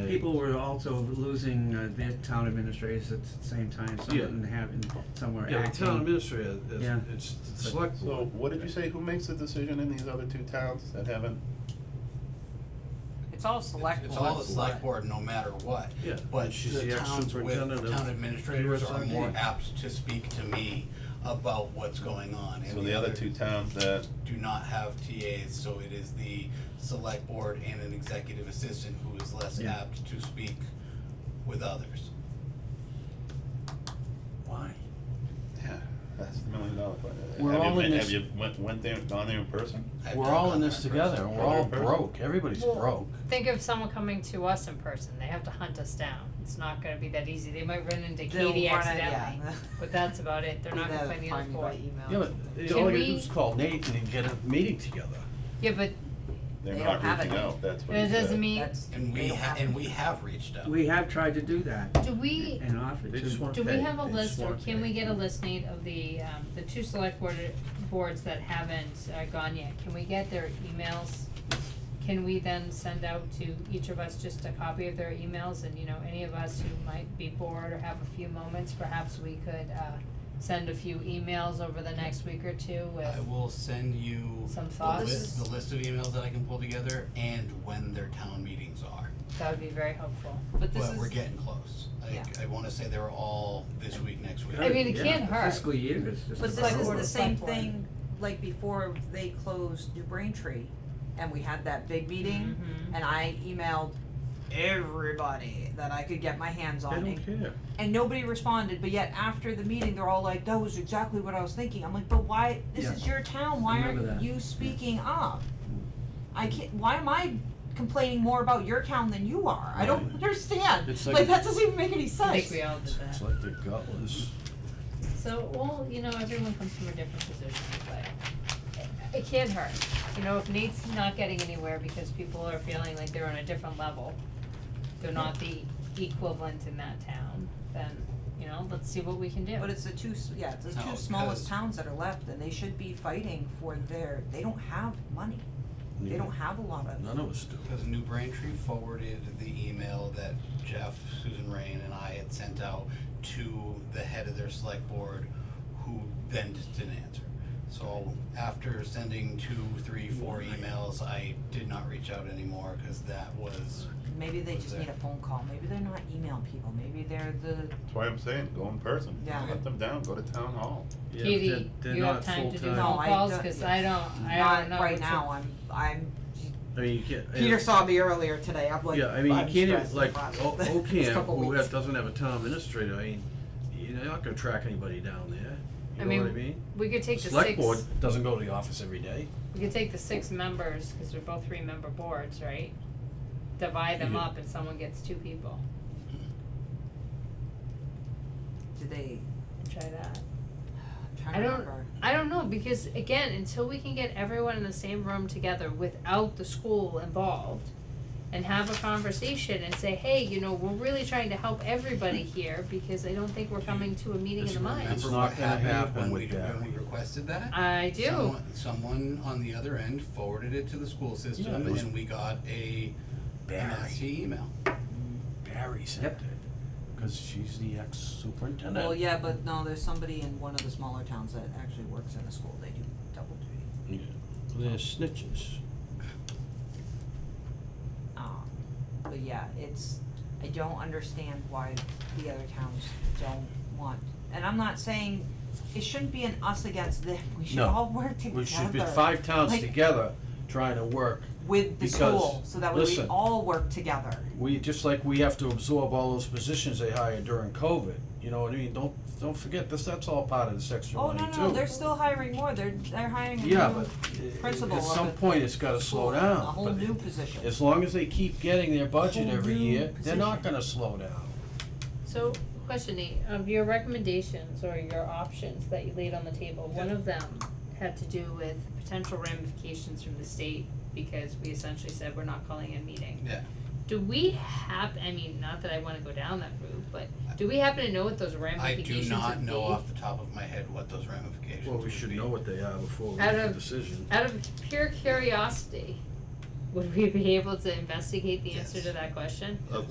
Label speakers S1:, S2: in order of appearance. S1: But people were also losing uh, their town administrators at the same time, some
S2: Yeah.
S1: didn't have, and some were
S2: Yeah, the town
S1: acting.
S2: administrator, it's,
S1: Yeah.
S2: it's the select
S3: So
S2: board.
S3: what did you say, who makes the decision in these other two towns that haven't?
S4: It's all select board.
S5: It's all the select board, no matter what.
S2: Yeah.
S5: But
S2: It's
S5: the
S2: the ex-
S5: towns
S2: superintendent
S5: with,
S2: of
S5: town administrators are
S2: USRD.
S5: more apt to speak to me about what's going on. and
S3: So the other two towns that,
S5: Do not have TAs, so it is the select board and an executive assistant who is less
S1: Yeah.
S5: apt to speak with others.
S2: Why?
S3: yeah, that's the million dollar question.
S6: We're
S3: Have you
S6: all in
S3: been-
S6: this-
S3: Have you went, went there, gone there in person?
S5: I've
S6: We're
S5: not
S6: all
S5: gone
S6: in
S5: there
S6: this
S5: in
S6: together,
S5: person.
S6: and we're all
S3: Person.
S6: broke, everybody's
S7: Well-
S6: broke.
S7: Think of someone coming to us in person, they have to hunt us down, it's not gonna be that easy, they might run into
S4: They'll
S7: Katie
S4: wanna-
S7: accidentally,
S4: yeah.
S7: but that's about it, they're not gonna
S4: They'll
S7: find the other
S4: find me
S7: four.
S4: by email.
S6: Yeah,
S4: or
S6: but
S4: something.
S6: they-
S7: Can
S6: all they gotta do
S7: we-
S6: is call Nathan and get a meeting together.
S7: Yeah, but
S3: They're
S4: They
S3: not
S4: don't have
S3: reaching
S4: it.
S3: out, that's what he
S7: that doesn't
S3: said.
S7: mean,
S4: That's-
S5: And
S4: they
S5: we
S4: don't
S5: ha-
S4: have
S5: and
S4: it.
S5: we have reached out.
S1: We have tried to do that
S7: do we,
S1: and offered
S2: They just
S1: to,
S2: want
S7: do we
S2: pay.
S7: have a
S2: They just
S7: list, or
S2: want
S7: can we
S2: pay.
S7: get a listing of the, um, the two select board, boards that haven't uh, gone yet, can we get their emails? Can we then send out to each of us just a copy of their emails, and you know, any of us who might be bored or have a few moments, perhaps we could, uh, send a few emails over the next week or two with.
S5: I will send you
S7: Some
S5: the
S7: thoughts?
S5: list, the list of emails that I can pull together and when their town meetings are.
S7: That would be very helpful.
S4: But this
S5: But we're
S4: is,
S5: getting close.
S4: Yeah.
S5: I, I wanna say they were all this week, next week.
S7: I mean, it
S1: yeah,
S7: can't hurt.
S1: Fiscal year is just.
S4: but
S1: about
S4: this is
S1: over.
S4: the
S7: Board.
S4: same
S7: Select board.
S4: thing, like before they closed New Braintree, and we had that big meeting, and I emailed everybody that I could get my hands
S6: They
S4: on,
S6: don't
S4: and
S6: care.
S4: and nobody responded, but yet after the meeting, they're all like, that was exactly what I was thinking, I'm like, but why, this
S1: Yeah.
S4: is your town, why
S1: Remember
S4: aren't
S1: that.
S4: you speaking up? I can't, why am I complaining more about your town than you are, I don't
S6: Right.
S4: understand,
S6: It's like-
S4: like, that doesn't even make any sense.
S7: I think we all did
S6: It's
S7: that.
S6: like they're gutless.
S7: So, well, you know, everyone comes from a different position, but it, it can't hurt. You know, if Nate's not getting anywhere because people are feeling like they're on a different level, they're not the equivalent in that town, then, you know, let's see what we can do.
S4: But it's the two, s- yeah, it's the
S5: No,
S4: two
S5: 'cause-
S4: smallest towns that are left, and they should be fighting for their, they don't have money, they don't have a lot of,
S6: None of us do.
S5: Because New Braintree forwarded the email that Jeff, Susan Rain, and I had sent out to the head of their select board, who then just didn't answer. So after sending two, three, four emails, I did not reach out anymore, because that was,
S4: maybe they just need a phone call, maybe they're not emailing people, maybe they're the,
S3: That's why I'm saying, go in person,
S4: Yeah.
S3: let them down, go to town hall.
S2: Yeah,
S7: Katie,
S2: they're- they're
S7: you have
S2: not
S7: time to do
S2: full-time.
S4: No,
S7: phone
S4: I
S7: calls,
S4: don't-
S7: cause I don't, I
S4: not
S7: don't know.
S4: right
S7: what's up.
S4: now, I'm, I'm,
S2: I mean, you can't.
S4: Peter saw me earlier today, I'm like,
S2: Yeah, I mean,
S4: I'm
S2: you can't even,
S4: stressed
S2: like,
S4: about it.
S2: O-
S4: It's a
S2: Ocam,
S4: couple
S2: who
S4: weeks.
S2: have- doesn't have a town administrator, I mean, you're not gonna track anybody down there,
S7: I
S2: you know what I
S7: mean,
S2: mean?
S7: We could take the
S6: Select
S7: six,
S6: board doesn't go to the office every day.
S7: we could take the six members, cause they're both three member boards, right? Divide them
S6: Yeah.
S7: up and someone gets two people,
S4: Did they,
S7: try that.
S4: I'm
S7: I
S4: trying to
S7: don't-
S4: remember,
S7: I don't know because again, until we can get everyone in the same room together without the school involved and have a conversation and say, hey, you know, we're really trying to help everybody here because I don't think we're coming to a meeting in
S2: Just
S7: the mind.
S6: It's
S5: remember
S6: not
S5: what
S6: gonna
S5: happened
S6: happen
S5: when
S6: with
S5: we,
S6: that.
S5: when we requested that?
S7: I do.
S5: Someone, someone on the other end forwarded it to the school
S6: Yeah,
S5: system,
S6: it was-
S5: and we got a
S6: Barry,
S5: nasty email.
S6: Barry sent it, cause she's the ex-superintendent.
S4: well, yeah, but no, there's somebody in one of the smaller towns that actually works in the school, they do double duty.
S6: Yeah. They're snitches.
S4: Um, but yeah, it's, I don't understand why the other towns don't want, and I'm not saying, it shouldn't be an us against them, we should
S6: No.
S4: all work together.
S6: We should be five towns
S4: Like-
S6: together trying to work.
S4: With the
S6: because,
S4: school, so that way we
S6: listen.
S4: all work together.
S6: We, just like we have to absorb all those positions they hired during COVID, you know what I mean? Don't, don't forget, this, that's all part of the section
S4: Oh,
S6: money too.
S4: no, no, they're still hiring more, they're, they're hiring a new
S6: Yeah, but i-
S4: principal
S6: at
S4: of
S6: some
S4: a
S6: point, it's gotta slow
S4: school,
S6: down.
S4: A whole
S6: but
S4: new position.
S6: As long as they keep getting their budget
S4: Whole
S6: every
S4: new
S6: year, they're not
S4: position.
S6: gonna slow down.
S7: So question Nate, of your recommendations or your options that you laid on the table, one of them had to do with potential ramifications from the state because we essentially said we're not calling a meeting.
S5: Yeah.
S7: Do we hap, I mean, not that I wanna go down that route, but do we happen to know what those
S5: I
S7: ramifications
S5: do
S7: would be?
S5: not know off the top of my head what those ramifications
S2: Well, we
S5: would
S2: should
S5: be.
S2: know what they are before we
S7: Out
S2: make a
S7: of-
S2: decision.
S7: Out of pure curiosity, would we be able to investigate the answer
S5: Yes.
S7: to that question?
S5: Yes.